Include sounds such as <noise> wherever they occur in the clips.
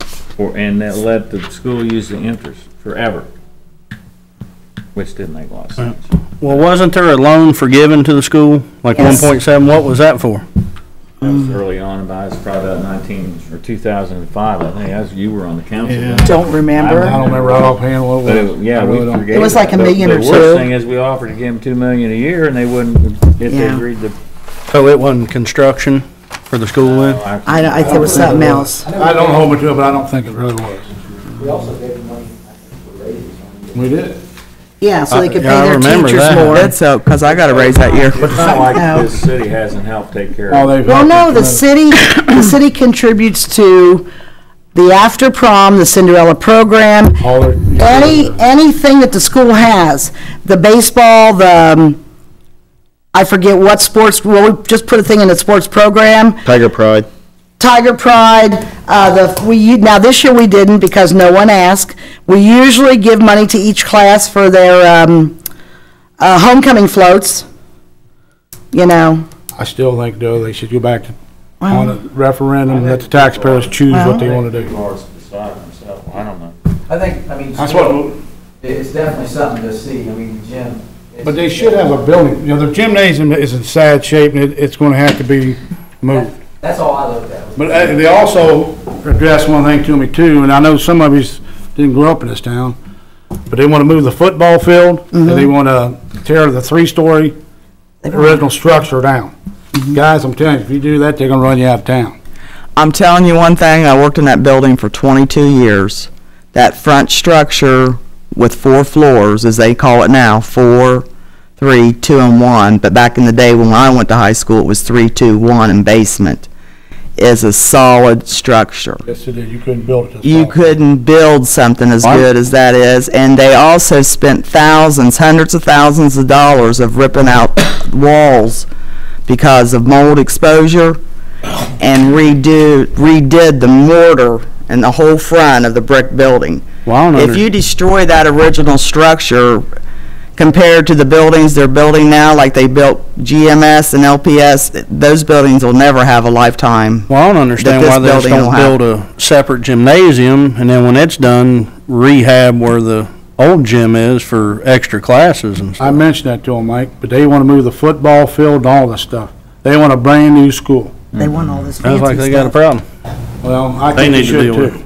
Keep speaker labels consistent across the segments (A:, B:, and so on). A: for, and that let the school use the interest forever, which didn't make a lot of sense.
B: Well, wasn't there a loan forgiven to the school, like one
C: Yes.
B: point seven, what was that for?
A: That was early on, about, it's probably about nineteen, or two thousand and five, I think, as you were on the council. then.
C: Don't
A: I
C: remember.
A: don't-
D: remember right offhand what
A: But it, yeah,
D: I
A: we
D: really don't-
A: forgave.
C: It was like a
A: The-
C: million
A: The
C: or
A: worst
C: two.
A: thing is, we offered to give them two million a year, and they wouldn't, if they
C: Yeah.
A: agreed to.
B: So Oh, it wasn't construction for the school then?
C: I, I think it was something else.
D: I don't hold me to it, but I don't think it really was.
E: We also gave them money, I think, for raises on the.
D: We did.
C: Yeah, so they could
B: Yeah, I
C: pay their
B: remember
C: teachers
B: that.
C: more.
F: That's up, because I got a raise that year.
A: But it's not like
C: No.
A: this city hasn't helped take care
D: Oh,
A: of it.
D: they've.
C: Well, no,
D: helped
C: the
D: us
C: city, the city contributes to the after prom, the Cinderella program,
D: tremendously. All their-
C: any, anything that the school has, the baseball, the, um, I forget what sports, well, we just put a thing in the sports program,
B: Tiger Pride.
C: Tiger Pride, uh, the, we, u- now this year we didn't because no one asked. We usually give money to each class for their, um, uh, homecoming floats, you know.
D: I still think though, they should go back to, on a referendum, let the taxpayers choose what they want to do.
A: People are deciding themselves, I don't know.
E: I think, I mean.
D: That's what,
E: It's definitely something to see, I mean, Jim. it's-
D: but they should have a building, you know, their gymnasium is in sad shape and it, it's gonna have to be moved.
E: That's all I looked at. was-
D: But uh, they also addressed one thing to me too, and I know some of yous didn't grow up in this town, but they want to move the football field, and they want to tear the three-story original structure down. Guys, I'm telling you, if you do that, they're gonna run you out of town.
F: I'm telling you one thing, I worked in that building for 22 years. That front structure with four floors, as they call it now, four, three, two, and one, but back in the day when I went to high school, it was three, two, one, and basement, is a solid structure.
D: Yes, it is. You couldn't build it.
F: You couldn't build something as good as that is, and they also spent thousands, hundreds of thousands of dollars of ripping out walls because of mold exposure and redo, redid the mortar and the whole front of the brick building.
B: Well, I don't
F: If
B: under,
F: you destroy that original structure compared to the buildings they're building now, like they built GMS and LPS, those buildings will never have a lifetime
B: well, I don't understand
F: this
B: why they just
F: building
B: don't
F: will have-
B: build a separate gymnasium, and then when it's done, rehab where the old gym is for extra classes and
D: I
B: stuff.
D: mentioned that to them, Mike, but they want to move the football field and all this stuff. They want a brand-new school.
C: They want all this
B: Sounds like
C: fancy
B: they got a
C: stuff.
B: problem.
D: Well, I
B: They
D: think they
B: need to
D: should
B: deal with
D: too.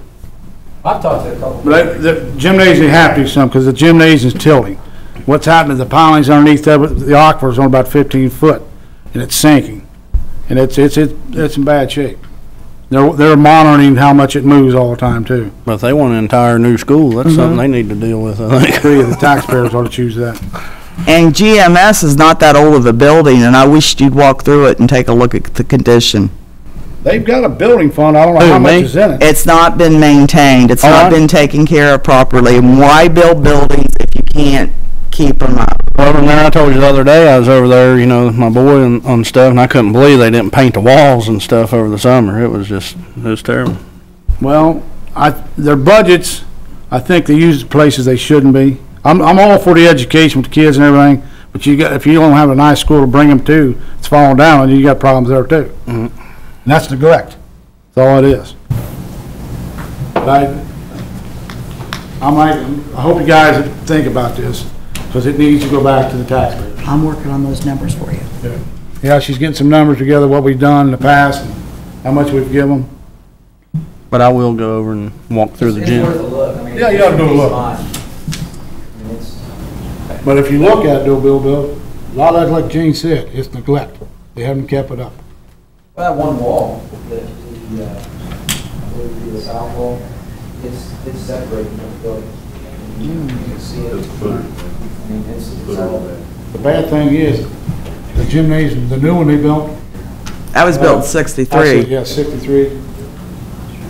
E: I've talked to a couple.
D: But the gymnasium have to do something, because the gymnasium's tilting. What's happening, the pilings underneath of it, the aquifer's on about fifteen foot, and it's sinking. And it's, it's, it's it's in bad shape. They're, they're monitoring how much it moves all the time, too.
B: But if they want an entire new school, that's something they need to deal with, I think.
D: Three of <laughs> the taxpayers ought to choose that.
F: And GMS is not that old of a building, and I wish you'd walk through it and take a look at the condition.
D: They've got a building fund, I don't know
B: Who,
D: how
B: me?
D: much is in it.
F: It's not been maintained, it's
B: Oh, I-
F: not been taken care of properly, and why build buildings if you can't keep them up?
B: Well, and there, I told you the other day, I was over there, you know, with my boy and, on stuff, and I couldn't believe they didn't paint the walls and stuff over the summer. It was just, it was terrible.
D: Well, I, their budgets, I think they use the places they shouldn't be. I'm, I'm all for the education with the kids and everything, but you got, if you don't have a nice school to bring them to, it's falling down, and you got problems there too. And that's neglect, that's all it is. But I, I might, I hope you guys think about this, because it needs to go back to the taxpayers.
C: I'm working on those numbers for you.
D: Yeah, she's getting some numbers together, what we've done in the past, and how much we've given them.
B: But I will go over and walk through the
E: It's
B: gym.
E: worth a look, I mean.
D: Yeah, you ought to go
E: it's
D: look.
E: fine. I mean, it's-
D: But if you look at it, though, Bill, Bill, a lot of it, like Gene said, it's neglect. They haven't kept it up.
E: Well, that one wall, the, the, uh, I believe the south wall, it's, it's separated from the building. You can see it. I mean, it's, it's all.
D: The bad thing is, the gymnasium, the new one they built.
F: That was
D: uh,
F: built
D: actually,
F: sixty-three.
D: Yeah, sixty-three.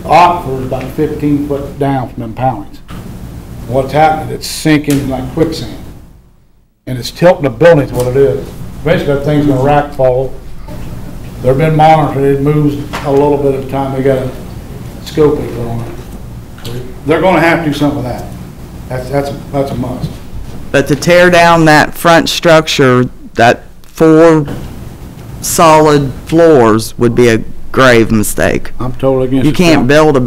D: Aquifer is about fifteen foot down from them pilings. What's happening, it's sinking like quicksand. And it's tilting the building is what it is. Basically, that thing's gonna rack fall. They've been monitoring, it moves a little bit at a time, they got a scope they put on it. They're gonna have to do something with that. That's, that's, that's a must.
F: But to tear down that front structure, that four solid floors would be a grave mistake.
D: I'm totally against it.
F: You can't build a